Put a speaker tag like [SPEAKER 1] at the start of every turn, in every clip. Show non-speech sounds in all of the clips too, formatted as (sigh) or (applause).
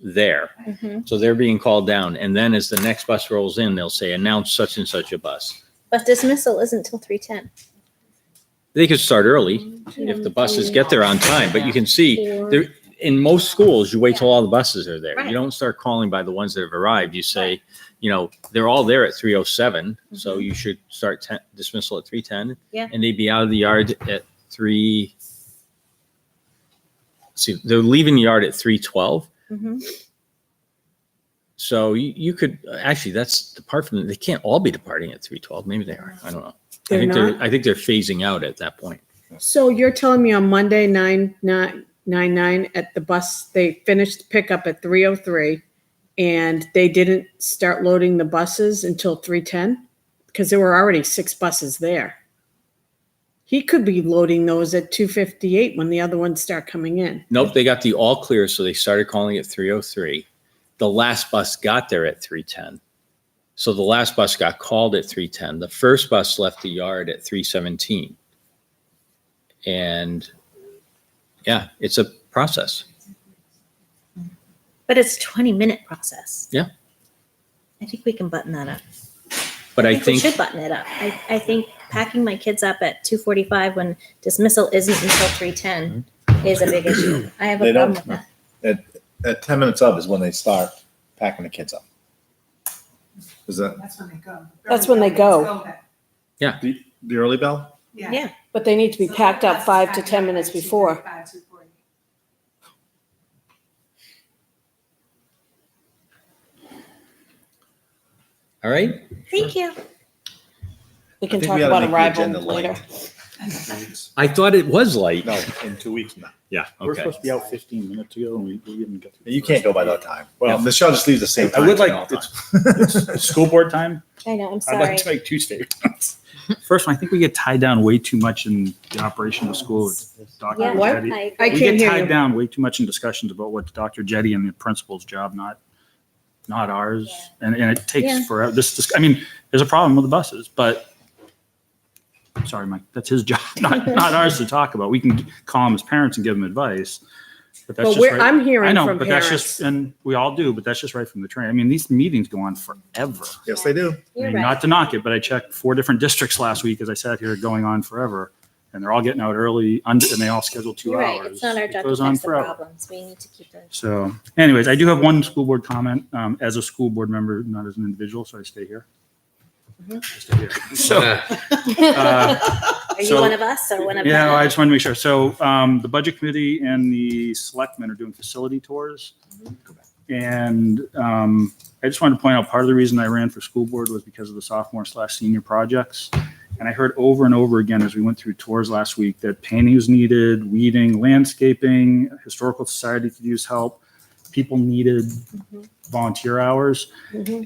[SPEAKER 1] there.
[SPEAKER 2] Mhm.
[SPEAKER 1] So they're being called down. And then as the next bus rolls in, they'll say, announce such and such a bus.
[SPEAKER 2] But dismissal isn't till three ten.
[SPEAKER 1] They could start early if the buses get there on time, but you can see there, in most schools, you wait till all the buses are there. You
[SPEAKER 2] Right.
[SPEAKER 1] don't start calling by the ones that have arrived. You say, you know, they're all there at three oh seven, so you should start ten- dismissal at three ten.
[SPEAKER 2] Yeah.
[SPEAKER 1] And they'd be out of the yard at three. See, they're leaving the yard at three twelve.
[SPEAKER 2] Mhm.
[SPEAKER 1] So you, you could, actually, that's depart from, they can't all be departing at three twelve. Maybe they are. I don't know. I
[SPEAKER 3] They're
[SPEAKER 1] think they're,
[SPEAKER 3] not?
[SPEAKER 1] I think they're phasing out at that point.
[SPEAKER 3] So you're telling me on Monday, nine, nine, nine, nine, at the bus, they finished pickup at three oh three and they didn't start loading the buses until three ten? Because there were already six buses there. He could be loading those at two fifty-eight when the other ones start coming in.
[SPEAKER 1] Nope, they got the all clear, so they started calling it 303. The last bus got there at 310. So the last bus got called at 310. The first bus left the yard at 317. And yeah, it's a process.
[SPEAKER 2] But it's twenty minute process.
[SPEAKER 1] Yeah.
[SPEAKER 2] I think we can button that up.
[SPEAKER 1] But I
[SPEAKER 2] we
[SPEAKER 1] think
[SPEAKER 2] should button it up. I, I think packing my kids up at two forty five when dismissal isn't until three ten
[SPEAKER 4] Mm-hmm.
[SPEAKER 2] is a big issue. I have a
[SPEAKER 5] They
[SPEAKER 2] problem
[SPEAKER 5] don't-
[SPEAKER 2] with that.
[SPEAKER 5] At, at ten minutes up is when they start packing the kids up. Is that
[SPEAKER 6] That's when they go.
[SPEAKER 3] That's when they go.
[SPEAKER 5] the, the early bell?
[SPEAKER 2] Yeah.
[SPEAKER 3] But they need
[SPEAKER 4] (laughs)
[SPEAKER 1] all right.
[SPEAKER 2] Thank you.
[SPEAKER 3] We
[SPEAKER 5] I think we ought to make the agenda light.
[SPEAKER 4] (laughs)
[SPEAKER 1] I thought it was light.
[SPEAKER 5] No, in two weeks now.
[SPEAKER 1] Yeah.
[SPEAKER 4] We're
[SPEAKER 1] Okay.
[SPEAKER 4] supposed to be out fifteen minutes ago and we, we didn't get.
[SPEAKER 5] You can't go by that time.
[SPEAKER 4] Well-
[SPEAKER 5] Well, Michelle just leaves the same
[SPEAKER 4] I
[SPEAKER 5] time.
[SPEAKER 4] would
[SPEAKER 5] for
[SPEAKER 4] like,
[SPEAKER 5] all time.
[SPEAKER 4] it's, (laughs) it's school board time.
[SPEAKER 2] I know, I'm
[SPEAKER 4] I'd
[SPEAKER 2] sorry.
[SPEAKER 4] like to make two statements. (laughs) First one, I think we get tied down way too much in the operation of school. with Dr.
[SPEAKER 2] Yeah,
[SPEAKER 3] What?
[SPEAKER 4] Jetty.
[SPEAKER 2] I
[SPEAKER 3] I
[SPEAKER 4] We
[SPEAKER 3] can't
[SPEAKER 2] agree.
[SPEAKER 3] hear
[SPEAKER 4] get
[SPEAKER 3] you.
[SPEAKER 4] tied down way too much in discussions about what Dr. Jetty and the principal's job, not, not ours. And, and it
[SPEAKER 2] Yeah.
[SPEAKER 4] takes forever. This, this, I mean, there's a problem with the buses, but sorry, Mike, that's his job, (laughs) not, not ours to talk about. We can call him as parents and give him advice. But that's
[SPEAKER 3] But
[SPEAKER 4] just
[SPEAKER 3] we're,
[SPEAKER 4] right-
[SPEAKER 3] I'm hearing
[SPEAKER 4] I know,
[SPEAKER 3] from
[SPEAKER 4] but that's just,
[SPEAKER 3] parents.
[SPEAKER 4] and we all do, but that's just right from the train. I mean, these meetings go on forever.
[SPEAKER 5] Yes, they do.
[SPEAKER 4] I
[SPEAKER 2] You're
[SPEAKER 4] mean,
[SPEAKER 2] right.
[SPEAKER 4] Not to knock it, but I checked four different districts last week as I sat here going on forever. And they're all getting out early und- and they all schedule two
[SPEAKER 2] You're
[SPEAKER 4] hours.
[SPEAKER 2] right. It's not our
[SPEAKER 4] It
[SPEAKER 2] job to
[SPEAKER 4] goes on
[SPEAKER 2] fix the
[SPEAKER 4] forever.
[SPEAKER 2] problems. We need to keep those.
[SPEAKER 4] So anyways, I do have one school board comment, um, as a school board member, not as an individual, so I stay here.
[SPEAKER 2] Mm-hmm.
[SPEAKER 4] I stay here. So, uh,
[SPEAKER 2] (laughs) Are you
[SPEAKER 4] So-
[SPEAKER 2] one of us or one of
[SPEAKER 4] yeah, I
[SPEAKER 2] them?
[SPEAKER 4] just wanted to make sure. So um, the budget committee and the selectmen are doing facility tours. And um, I just wanted to point out, part of the reason I ran for school board was because of the sophomore slash senior projects. And I heard over and over again as we went through tours last week that painting was needed, weeding, landscaping, historical society could use help. People needed volunteer hours.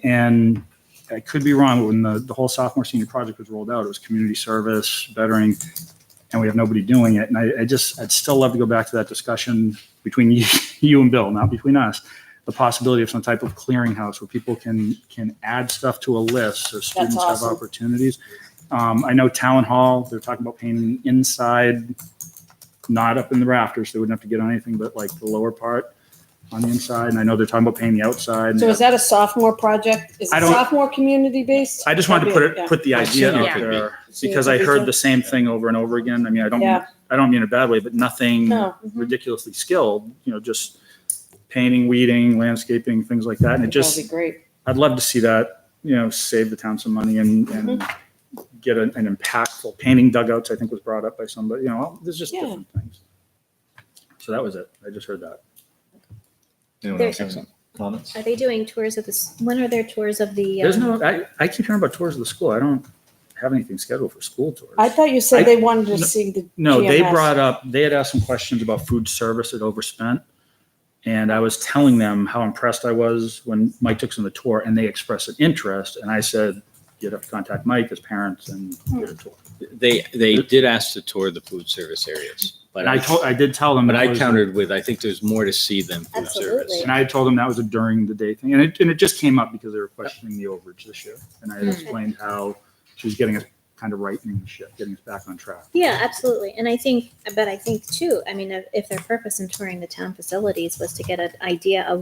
[SPEAKER 4] And I could be wrong, but when the, the whole sophomore senior project was rolled out, it was community service, bettering, and we have nobody doing it. And I, I just, I'd still love to go back to that discussion between (laughs) you, you and Bill, not between us. The possibility of some type of clearinghouse where people can, can add stuff to a list so students have
[SPEAKER 3] awesome.
[SPEAKER 4] opportunities. Um, I know Town Hall, they're talking about painting inside, not up in the rafters. They wouldn't have to get on anything but like the lower part on the inside. And I know they're talking about painting the outside. and
[SPEAKER 3] So is that a sophomore project? Is
[SPEAKER 4] I
[SPEAKER 3] it
[SPEAKER 4] don't-
[SPEAKER 3] sophomore community based?
[SPEAKER 4] I just wanted to put it, put the idea
[SPEAKER 1] Senior
[SPEAKER 4] out
[SPEAKER 1] could be.
[SPEAKER 4] there because I heard the same thing over and over again. I mean, I don't,
[SPEAKER 3] Yeah.
[SPEAKER 4] I don't mean it a bad way, but nothing
[SPEAKER 3] No.
[SPEAKER 4] ridiculously skilled, you know, just painting, weeding, landscaping, things like that. And it
[SPEAKER 3] That'd
[SPEAKER 4] just,
[SPEAKER 3] be great.
[SPEAKER 4] I'd love to see that, you know, save the town some money and, and
[SPEAKER 3] Mm-hmm.
[SPEAKER 4] get an, an impactful painting dugouts, I think was brought up by somebody, you know, there's just
[SPEAKER 3] Yeah.
[SPEAKER 4] different things. So that was it. I just heard that.
[SPEAKER 5] Anyone
[SPEAKER 2] There-
[SPEAKER 5] else have any comments?
[SPEAKER 2] Are they doing tours of this? When are their tours of the?
[SPEAKER 4] There's
[SPEAKER 2] um,
[SPEAKER 4] no, I, I keep hearing about tours of the school. I don't have anything scheduled for school tours.
[SPEAKER 3] I thought you
[SPEAKER 4] I-
[SPEAKER 3] said they wanted to
[SPEAKER 4] no-
[SPEAKER 3] see the.
[SPEAKER 4] No, they
[SPEAKER 3] GMS.
[SPEAKER 4] brought up, they had asked some questions about food service at Overspent. And I was telling them how impressed I was when Mike took them on the tour and they expressed an interest. And I said, you'd have to contact Mike as parents and get a tour.
[SPEAKER 1] They, they did ask to tour the food service areas, but
[SPEAKER 4] And I
[SPEAKER 1] I,
[SPEAKER 4] told, I did tell them.
[SPEAKER 1] but
[SPEAKER 4] that
[SPEAKER 1] I
[SPEAKER 4] was-
[SPEAKER 1] countered with, I think there's more to see than food service.
[SPEAKER 2] Absolutely.
[SPEAKER 4] And I told them that was a during the day thing. And it, and it just came up because they were questioning the overage this year. And I had explained how she was getting us kind of right in the ship, getting us back on track.
[SPEAKER 2] Yeah, absolutely. And I think, but I think too, I mean, if- if their purpose in touring the town facilities was to get an idea of